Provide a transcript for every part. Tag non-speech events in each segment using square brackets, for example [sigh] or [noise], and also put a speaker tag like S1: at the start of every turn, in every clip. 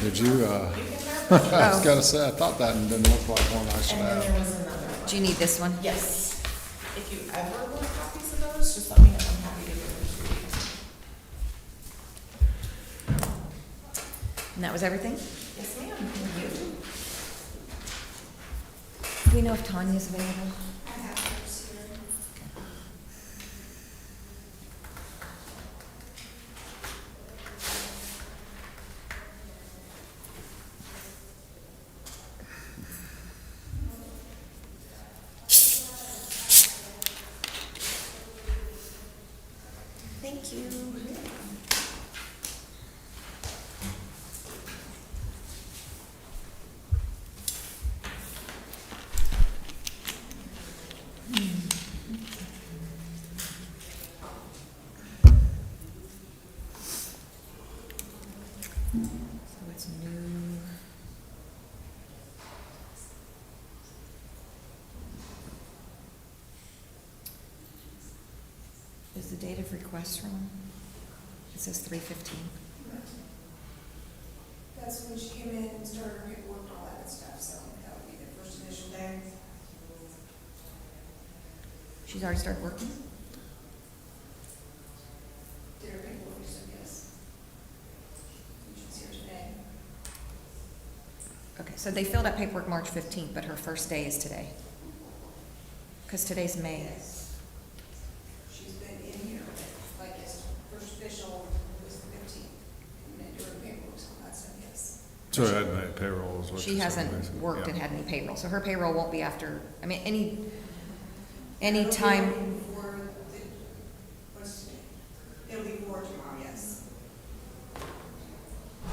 S1: Did you, uh, [laughs] I was gonna say, I thought that and didn't look like one I should
S2: And then
S1: have.
S2: there was another one.
S3: Do you need this one?
S2: Yes. If you ever want copies of those, just let me know. I'm happy to give them to you.
S3: And that was everything?
S2: Yes, ma'am. Thank you.
S3: Do we know if Tanya's available?
S2: Thank you.
S3: So it's new. Is the date of request wrong? It says three fifteen.
S4: That's when she came in and started her paperwork and all that good stuff, so that would be the first initial day.
S3: She's already started working?
S4: Did her paperwork, so yes. You should see her today.
S3: Okay, so they filled out paperwork March fifteenth, but her first day is today. Because today's May.
S4: Yes. She's been in here, like, as first official was the fifteenth, and then doing paperwork, so that's a yes.
S1: So I had my payroll as well.
S3: She hasn't worked and had any payroll, so her payroll won't be after, I mean, any, any
S4: It'll be
S3: time,
S4: For the, what's today? It'll be for tomorrow, yes.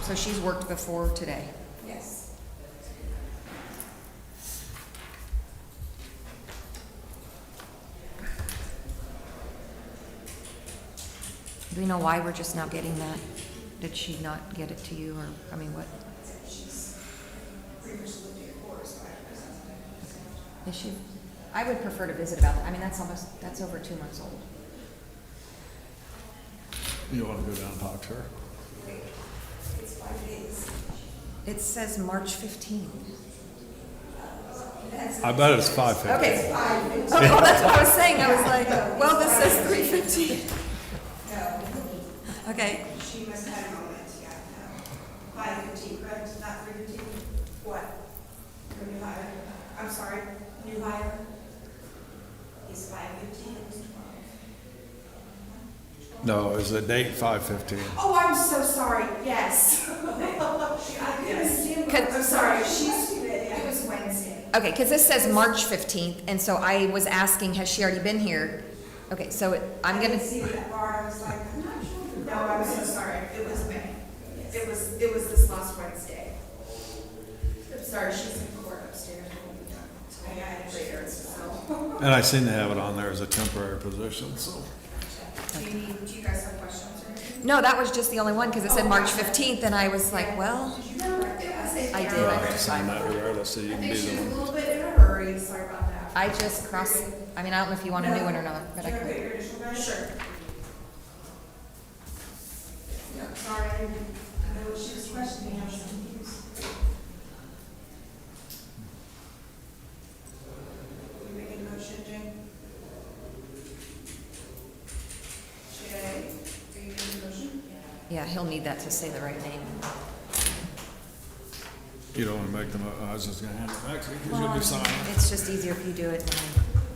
S3: so she's worked before today.
S4: Yes.
S3: Do we know why we're just now getting that? Did she not get it to you, or, I mean, what? Is she, I would prefer to visit about, that. I mean, that's almost, that's over two months old.
S1: You wanna go down and talk to her?
S3: It says March fifteenth.
S1: I bet it's five fifty.
S3: Okay. Oh, that's what I was saying, I was like, uh, well, this says three fifteen. Okay,
S4: She must have had a moment, yeah, no. Five fifteen, correct, not three fifteen? What? Your new hire, I'm sorry, new hire? He's five fifteen, it was twelve.
S1: No, is the date five fifteen?
S4: Oh, I'm so sorry, [laughs] yes. I couldn't see it.
S3: Could-
S4: I'm sorry, she's, it was Wednesday.
S3: okay, because this says March fifteenth, and so I was asking, has she already been here? Okay, so it- I'm
S4: I
S3: gonna,
S4: didn't see that bar, I was like, I'm not sure. No, I'm so sorry, it was May. It was, it was this last Wednesday. I'm sorry, she's in court upstairs. I got it later, so.
S1: And I seem to have it on there as a temporary position, so.
S4: [laughs] Do you need, do you guys have questions or anything?
S3: no, that was just the only one, because it said
S4: Oh.
S3: March fifteenth, and I was like, well, I did,
S1: Well,
S3: I
S1: I
S3: just
S1: sign that regardless, so you can be the one.
S4: little bit in a hurry, sorry about that.
S3: I just cross, I mean, I don't know if you want a new one or not, but I
S4: Can I put
S3: could.
S4: your initial down? Sure. Yeah, sorry, I didn't know what she was questioning, I was confused. You making a motion, Jane? Jay, are you making a motion?
S3: Yeah, he'll need that to say the right name.
S1: You don't wanna make them, I was just gonna hand it back to you, cause you'll be signing.
S3: It's just easier if you do it than I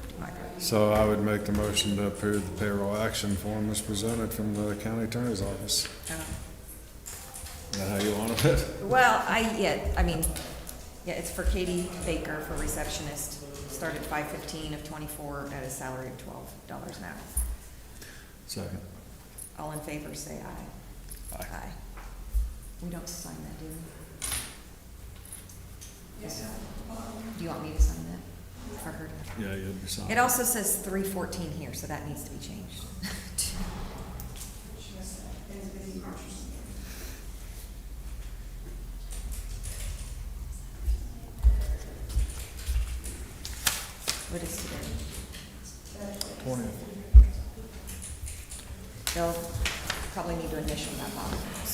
S3: do my part.
S1: So I would make the motion to approve the payroll action form as presented from the county attorney's office. Is that how you wanted it? [laughs]
S3: Well, I, yeah, I mean, yeah, it's for Katie Baker for receptionist, started five fifteen of twenty-four at a salary of twelve dollars an hour.
S1: Second.
S3: All in favor, say aye.
S1: Aye.
S3: We don't sign that, do we?
S4: Yes.
S3: Do you want me to sign that for her?
S1: Yeah, you'll be signing.
S3: It also says three fourteen here, so that needs to be changed. [laughs]